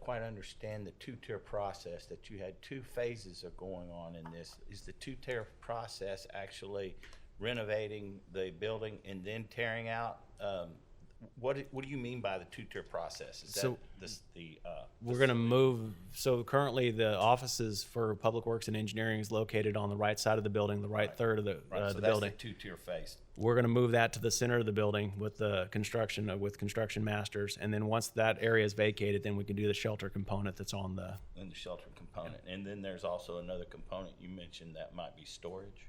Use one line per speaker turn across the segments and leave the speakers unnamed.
quite understand the two-tier process, that you had two phases of going on in this. Is the two-tier process actually renovating the building and then tearing out? Um, What, do- what do you mean by the two-tier process? Is that
So-
this, the, uh,
We're going to move. So currently, the offices for Public Works and Engineering is located on the right side of the building, the right third of the,
right, so
uh, the
that's the
building.
two-tier phase.
We're going to move that to the center of the building with the construction, uh, with construction masters. And then once that area is vacated, then we can do the shelter component that's on the,
And the shelter component. And then there's also another component you mentioned that might be storage.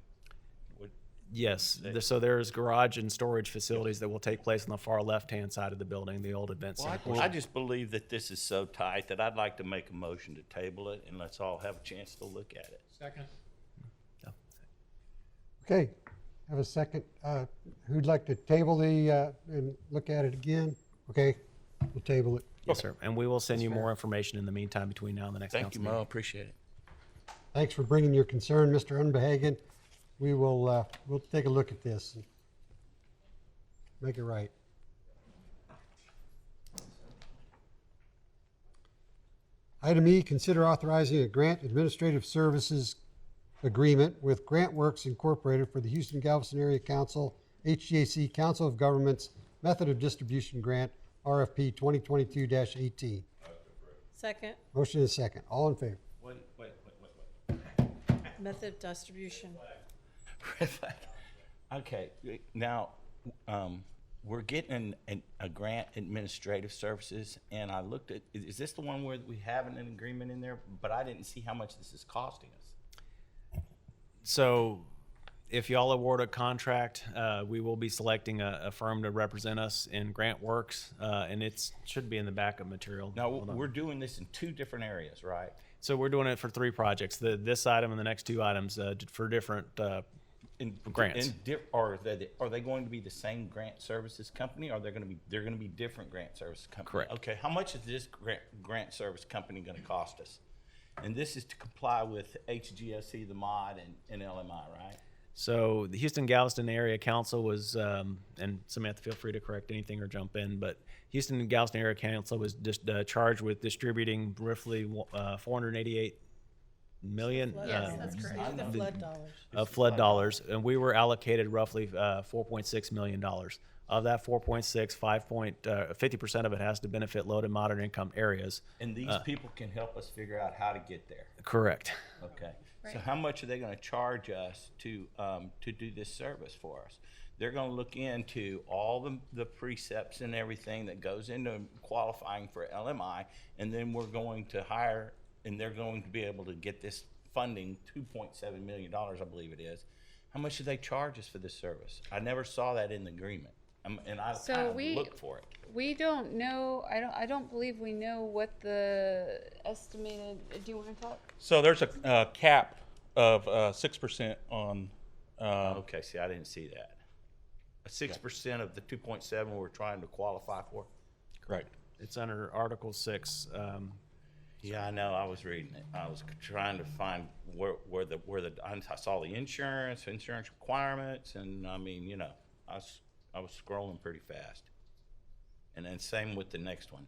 What,
yes. th- So there's garage and storage facilities that will take place on the far left-hand side of the building, the old event
Well,
center.
I- I just believe that this is so tight that I'd like to make a motion to table it and let's all have a chance to look at it.
Second.
Okay, have a second. Uh, Who'd like to table the, uh, and look at it again? Okay, we'll table it.
Yes, sir. And we will send you more information in the meantime between now and the next council meeting.
Appreciate it.
Thanks for bringing your concern, Mr. Unbehagen. We will, uh, we'll take a look at this and make it right. Item E, consider authorizing a grant administrative services agreement with Grant Works Incorporated for the Houston Galveston Area Council, HGAC Council of Governments Method of Distribution Grant, RFP 2022-18.
Second,
Motion is second. All in favor?
Wait, wait, wait, wait, wait.
method of distribution.
Red flag. Okay, now, um, we're getting an, an, a grant administrative services, and I looked at, is, is this the one where we have an agreement in there? But I didn't see how much this is costing us.
So if y'all award a contract, uh, we will be selecting a, a firm to represent us in grant works, uh, and it's, should be in the backup material.
Now,
Hold on.
we're doing this in two different areas, right?
So we're doing it for three projects, the, this item and the next two items, uh, d- for different, uh,
In
Grants.
in di- are they, are they going to be the same grant services company? Or they're going to be, they're going to be different grant service company?
Correct.
Okay, how much is this grant, grant service company going to cost us? And this is to comply with HGSC, the mod, and, and LMI, right?
So the Houston Galveston Area Council was, um, and Samantha, feel free to correct anything or jump in, but Houston and Galveston Area Council was just uh, charged with distributing roughly uh, 488 million
Yes,
uh,
that's correct. The flood dollars.
of flood dollars, and we were allocated roughly uh, 4.6 million dollars. Of that 4.6, 5 point, uh, 50% of it has to benefit low to moderate income areas.
And these people can help us figure out how to get there.
Correct.
Okay. So how much are they going to charge us to, um, to do this service for us? They're going to look into all the, the precepts and everything that goes into qualifying for LMI, and then we're going to hire, and they're going to be able to get this funding, two point seven million dollars, I believe it is. How much do they charge us for this service? I never saw that in the agreement, Um, and I
So
kind of
we-
looked for it.
We don't know, I don't, I don't believe we know what the estimated, do you wanna talk?
So there's a uh, cap of uh, six percent on. Uh,
Okay, see, I didn't see that. Six percent of the two point seven we're trying to qualify for?
Correct.
It's under Article 6. Um,
Yeah, I know. I was reading it. I was trying to find where, where the, where the, I saw the insurance, insurance requirements, and I mean, you know, I was, I was scrolling pretty fast. And then same with the next one.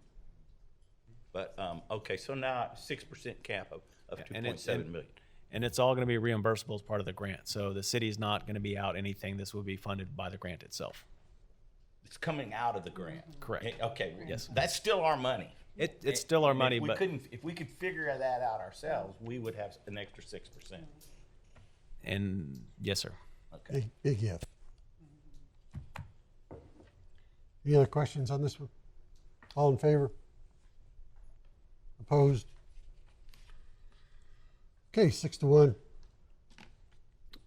But, um, okay, so now six percent cap of, of two
and
point
it's-
seven
and-
million.
and it's all going to be reimbursable as part of the grant. So the city's not going to be out anything. This will be funded by the grant itself.
It's coming out of the grant.
Correct.
Eh, Okay. Yes. That's still our money.
It, it's still our
And
money,
if we
but
couldn't, if we could figure that out ourselves, we would have an extra six percent.
and yes, sir.
Big, big if. Any other questions on this one? All in favor? Opposed? Okay, six to one.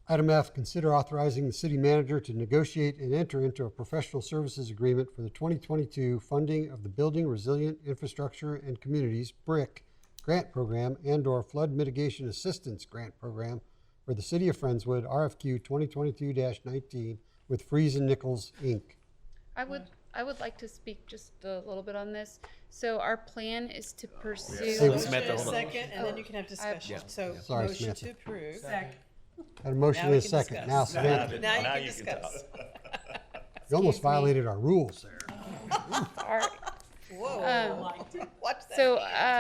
Item F, consider authorizing the city manager to negotiate and enter into a professional services agreement for the 2022 funding of the Building Resilient Infrastructure and Communities, BRIC, grant program and/or flood mitigation assistance grant program for the city of Friendswood, RFQ 2022-19 with Freeze and Nichols, Inc.
I would, I would like to speak just a little bit on this. So our plan is to
Say
pursue,
what-
Motion
Samantha,
is
hold on.
second, and then you can have discussion. So,
Sorry,
motion
Samantha.
to approve.
Got a motion
Now
and
we
a
can
second. Now,
discuss.
Samantha,
Now you
Now
can
you can talk.
discuss.
you almost
Excuse me.
violated our rules there.
our, um,
Whoa. Watch that.
so, uh,